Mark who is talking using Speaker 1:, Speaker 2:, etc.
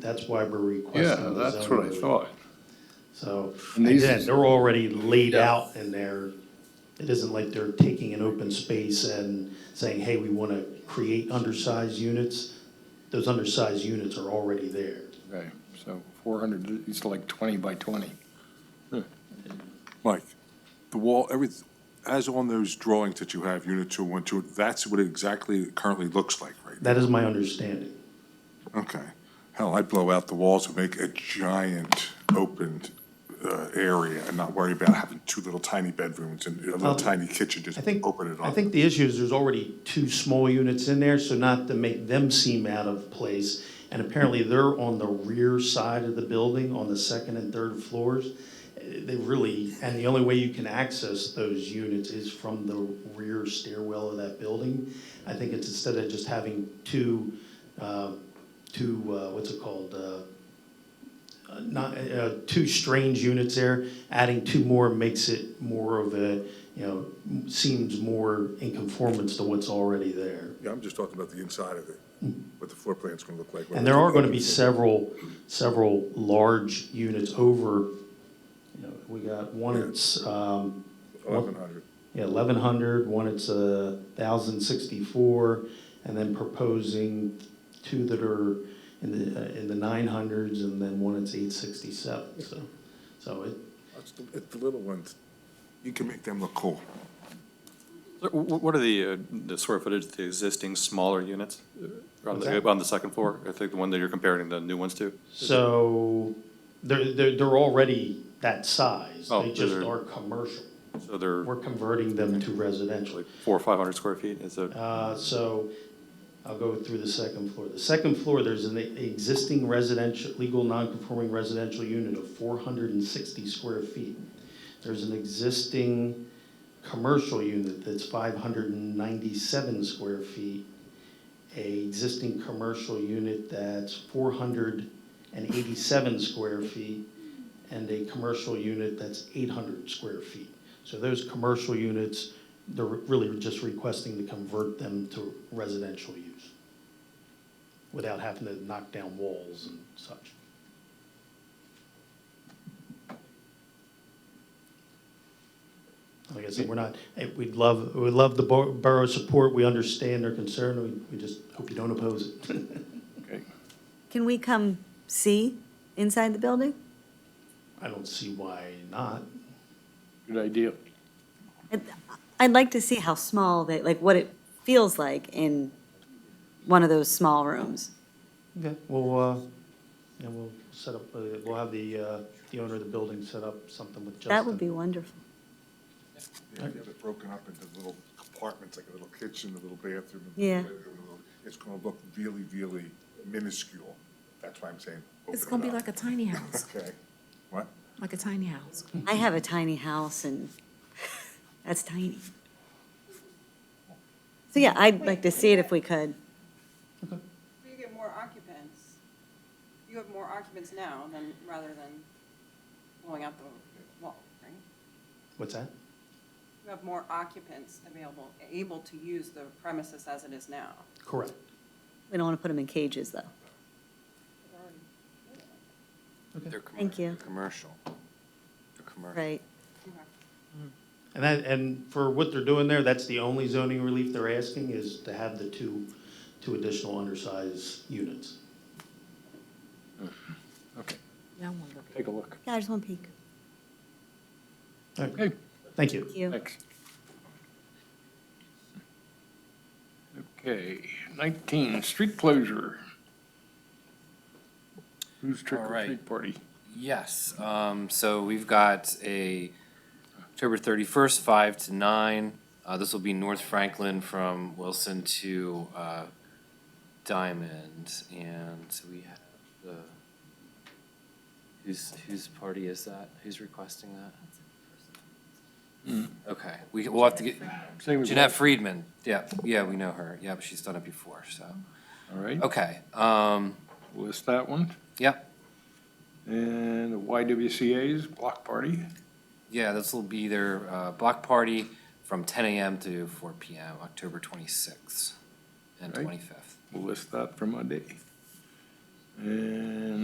Speaker 1: that's why we're
Speaker 2: Yeah,
Speaker 1: requesting the
Speaker 2: that's what I
Speaker 1: zoning.
Speaker 2: thought.
Speaker 1: So,
Speaker 2: And these-
Speaker 1: again, they're already laid
Speaker 2: Yeah.
Speaker 1: out and they're, it isn't like they're taking an open space and saying, hey, we wanna create undersized units. Those undersized units are already there.
Speaker 2: Okay, so four hundred, it's like twenty by twenty.
Speaker 3: Mike, the wall, every, as on those drawings that you have, unit two, one, two, that's what it exactly currently looks like right
Speaker 1: That is my understanding.
Speaker 3: now. Okay. Hell, I'd blow out the walls and make a giant open uh, area and not worry about having two little tiny bedrooms and a little
Speaker 1: Um,
Speaker 3: tiny kitchen, just
Speaker 1: I think,
Speaker 3: open it up.
Speaker 1: I think the issue is there's already two small units in there, so not to make them seem out of place. And apparently they're on the rear side of the building, on the second and third floors. Eh, They really, and the only way you can access those units is from the rear stairwell of that building. I think it's instead of just having two, uh, two, uh, what's it called, uh, uh, not, uh, two strange units there, adding two more makes it more of a, you know, m- seems more in conformance to what's already there.
Speaker 3: Yeah, I'm just talking about the inside of it, what the floor plan's gonna look like.
Speaker 1: Hmm. And there are gonna be several, several large units over, you know, we got one, it's, um,
Speaker 3: Eleven hundred.
Speaker 1: yeah, eleven hundred, one it's a thousand sixty-four, and then proposing two that are in the, uh, in the nine hundreds, and then one it's eight sixty-seven, so, so it,
Speaker 3: It's the- it's the little ones. You can make them look cool.
Speaker 4: So wh- wh- What are the, uh, the square footage of the existing smaller units uh, on
Speaker 1: What's
Speaker 4: the,
Speaker 1: that?
Speaker 4: on the second floor? I think the one that you're comparing the new ones to?
Speaker 1: So they're, they're, they're already that size.
Speaker 4: Oh,
Speaker 1: They just
Speaker 4: they're-
Speaker 1: are commercial.
Speaker 4: So they're
Speaker 1: We're converting them to residential.
Speaker 4: like four or 500 square feet, is it?
Speaker 1: Uh, so I'll go through the second floor. The second floor, there's an existing residential, legal non-conforming residential unit of four hundred and sixty square feet. There's an existing commercial unit that's five hundred and ninety-seven square feet. A existing commercial unit that's four hundred and eighty-seven square feet. And a commercial unit that's eight hundred square feet. So those commercial units they're really just requesting to convert them to residential use without having to knock down walls and such. Like I said, we're not, eh, we'd love, we'd love the bor- borough's support. We understand their concern. We- We just hope you don't oppose it.
Speaker 2: Okay.
Speaker 5: Can we come see inside the building?
Speaker 1: I don't see why not.
Speaker 2: Good idea.
Speaker 5: I'd- I'd like to see how small they, like what it feels like in one of those small rooms.
Speaker 1: Okay, well, uh, and we'll set up, uh, we'll have the, uh, the owner of the building set up something with Justin.
Speaker 5: That would be wonderful.
Speaker 3: If you have it broken up into little compartments, like a little kitchen, a little bathroom. a little
Speaker 5: Yeah.
Speaker 3: bedroom, a little- It's gonna look really, really minuscule. That's why I'm saying.
Speaker 6: It's
Speaker 3: open
Speaker 6: gonna
Speaker 3: it
Speaker 6: be
Speaker 3: up.
Speaker 6: like a tiny house,
Speaker 3: Okay, what?
Speaker 6: like a tiny house.
Speaker 5: I have a tiny house and that's tiny. So yeah, I'd like to see it if we could.
Speaker 7: You get more occupants, you have more occupants now than, rather than blowing out the wall, right?
Speaker 1: What's that?
Speaker 7: You have more occupants available, able to use the premises as it is now.
Speaker 1: Correct.
Speaker 5: We don't want to put them in cages though. Thank you.
Speaker 4: Commercial. They're commercial.
Speaker 5: Right.
Speaker 1: And that, and for what they're doing there, that's the only zoning relief they're asking is to have the two, two additional undersized units.
Speaker 2: Okay,
Speaker 6: Yeah, I wanna look.
Speaker 2: take a look.
Speaker 5: Yeah, I just want to peek.
Speaker 1: All right,
Speaker 2: Okay,
Speaker 1: thank you.
Speaker 5: Thank you.
Speaker 2: thanks. Okay, nineteen, street closure. Who's trick
Speaker 8: All
Speaker 2: or
Speaker 8: right.
Speaker 2: treat party?
Speaker 8: Yes, um, so we've got a October thirty-first, five to nine. Uh, this will be North Franklin from Wilson to, uh, Diamond, and we have the, whose, whose party is that? Who's requesting that?
Speaker 2: Hmm.
Speaker 8: Okay, we, we'll have to get,
Speaker 2: Same as
Speaker 8: Jeanette Friedman, yeah, yeah, we know her, yeah, she's done it before, so.
Speaker 2: All right,
Speaker 8: Okay, um,
Speaker 2: list that one.
Speaker 8: yeah,
Speaker 2: And the YWCA's block party.
Speaker 8: Yeah, this will be their uh, block party from ten AM to four PM, October twenty-sixth and
Speaker 2: Right.
Speaker 8: twenty-fifth.
Speaker 2: We'll list that for Monday. And